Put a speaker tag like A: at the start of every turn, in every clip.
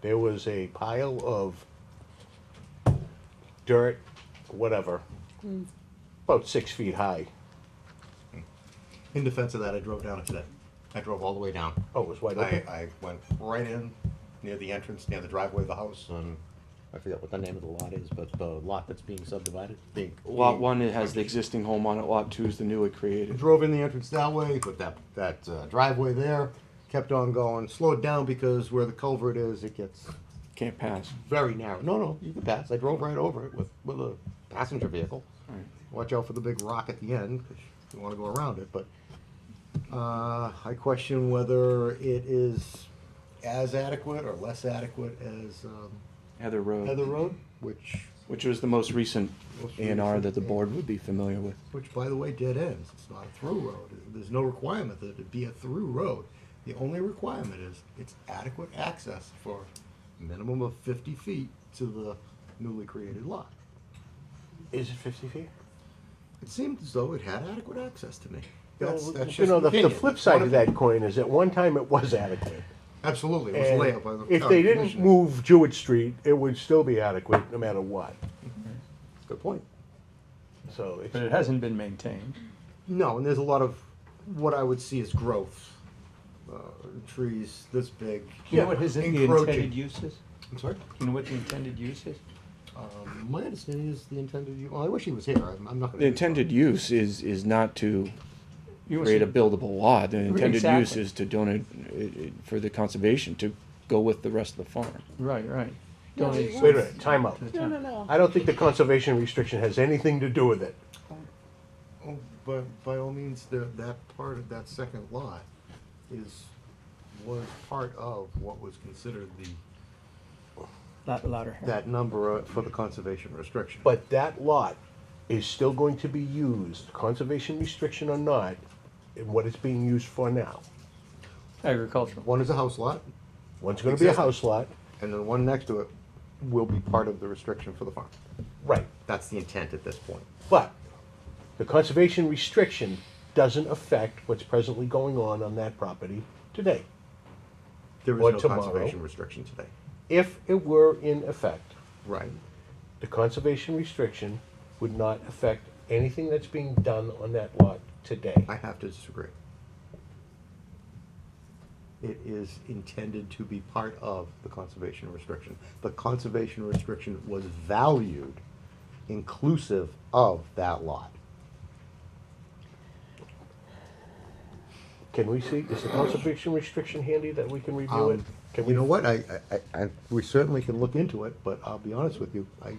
A: there was a pile of dirt, whatever, about six feet high.
B: In defense of that, I drove down it today. I drove all the way down.
A: Oh, it was wide
B: I,
A: open.
B: I went right in near the entrance, near the driveway of the house, and I forget what the name of the lot is, but the lot that's being subdivided. Being,
C: Lot
B: being-
C: one it has the existing home on it. Lot two is the newly created.
B: Drove in the entrance that way, but that that uh, driveway there kept on going. Slowed down because where the culvert is, it gets
C: Can't pass.
B: very narrow. No, no, you can pass. I drove right over it with with a passenger vehicle.
C: Alright.
B: Watch out for the big rock at the end, 'cause you want to go around it, but uh, I question whether it is as adequate or less adequate as um,
C: Heather Road,
B: Heather Road, which,
C: which was the most recent
B: Most
C: A and R
B: recent,
C: that the
B: yeah.
C: board would be familiar with.
B: which by the way, dead ends. It's not a through road. There's no requirement that it be a through road. The only requirement is it's adequate access for minimum of fifty feet to the newly created lot.
A: Is it fifty feet?
B: It seemed as though it had adequate access to me.
A: You know,
B: That's, that's
A: You
B: just
A: know,
B: an
A: the, the
B: opinion.
A: flip
B: It's one
A: side of that coin is at one time it was adequate.
B: Absolutely, it
A: And
B: was layup by the.
A: If
B: uh,
A: they didn't
B: commissioner.
A: move Jewett Street, it would still be adequate no matter what,
B: Good point.
A: so
D: But it
A: it's,
D: hasn't been maintained.
B: No, and there's a lot of what I would see as growth, uh, trees this big.
D: Do you know what his, the
B: encroaching.
D: intended use is?
B: I'm sorry.
D: Do you know what the intended use is?
B: Um, my understanding is the intended. u- Well, I wish he was here. I'm, I'm not. Gonna
C: The intended use is is not to
D: You
C: create a buildable lot. The intended use
D: Exactly.
C: is to donate it, it, for the conservation to go with the rest of the farm.
D: Right, right.
E: No,
D: Donate
E: it
A: wait a minute, time out.
D: to the
E: No, no,
D: town.
E: no.
A: I don't think the conservation restriction has anything to do with it.
B: Oh, but by all means, the, that part of that second lot is was part of what was considered the
D: Lot- Louder.
B: that number uh, for the conservation restriction.
A: But that lot is still going to be used, conservation restriction or not, in what it's being used for now.
D: Agricultural.
B: one is a house lot,
A: One's gonna be a
B: Existing.
A: house lot,
B: and the one next to it will be part of the restriction for the farm.
A: right,
B: That's the intent at this point.
A: but the conservation restriction doesn't affect what's presently going on on that property today.
B: There is
A: Or
B: no
A: tomorrow.
B: conservation restriction today.
A: If it were in effect,
B: Right.
A: the conservation restriction would not affect anything that's being done on that lot today.
B: I have to disagree. It is intended to be part of the conservation restriction. The conservation restriction was valued inclusive of that lot.
A: Can we see, is the conservation restriction handy that we can review it?
B: Um,
A: Can we
B: You know what, I, I- I, I, we certainly can look into it, but I'll be honest with you, I,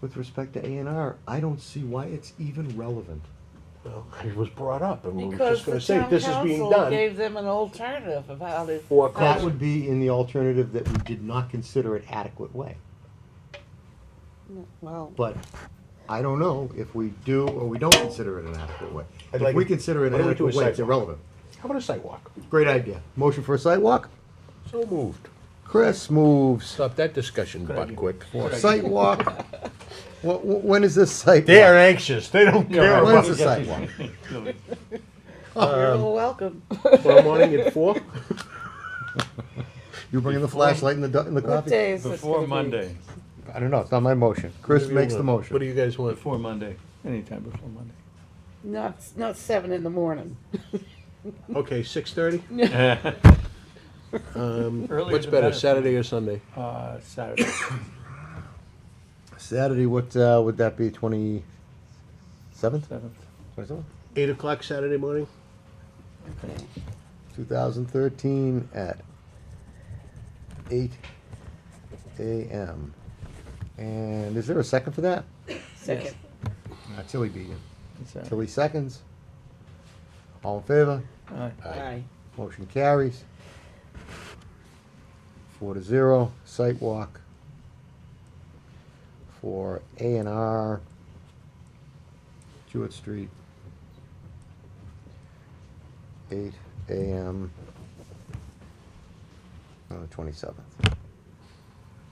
B: with respect to A and R, I don't see why it's even relevant.
A: Well, it was brought up, and we were
E: Because
A: just
E: the
A: gonna say,
E: town
A: this is being
E: council
A: done.
E: gave them an alternative of how to.
A: Or
B: That
A: cons-
B: would be in the alternative that we did not consider it adequate way.
E: Well,
B: But I don't know if we do or we don't consider it an adequate way.
A: I'd
B: If
A: like-
B: we consider it
A: why
B: an
A: don't we do a
B: adequate way, it's
A: sidewalk?
B: irrelevant.
A: How about a sidewalk?
B: Great idea. Motion for a sidewalk?
A: So moved.
B: Chris moves.
A: Stop that discussion butt quick.
B: Sidewalk? Wh- wh- When is this sidewalk?
A: They're anxious, they don't
D: You're
A: care
D: right.
B: When
A: about
B: is the sidewalk?
E: you're
A: um,
E: all welcome.
A: Tomorrow morning at four?
B: You bringing the flashlight in the, du- in the
E: What
B: coffee?
E: day is this gonna
D: Before
E: be?
D: Monday,
B: I don't know, it's not my motion. Chris makes the
A: What do
B: motion.
A: you guys want?
D: before Monday, anytime before Monday.
E: Not, not seven in the morning.
A: Okay, six thirty? Um,
D: Earlier
A: What's
D: the
A: better, Saturday or Sunday?
D: Uh, Saturday.
B: Saturday, what, uh, would that be, twenty-seventh?
D: Seventh.
B: Twenty-seventh?
A: Eight o'clock Saturday morning?
E: Okay.
B: Two thousand thirteen at eight AM. And is there a second for that?
E: Second.
B: Uh, Tilly beat you.
D: It's Saturday.
B: Tilly seconds. All in favor?
D: Aye.
E: Aye.
B: Motion carries. Four to zero, site walk for A and R, Jewett Street. Eight AM on the uh, twenty-seventh.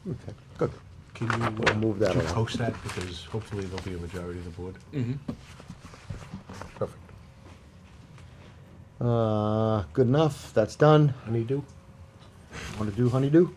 B: Okay, good.
A: Can you, uh,
B: We'll move that
A: can you
B: along.
A: post that, because hopefully there'll be a majority of the board?
B: Perfect. Uh, good enough, that's done.
A: Honeydew?
B: Want to do honeydew?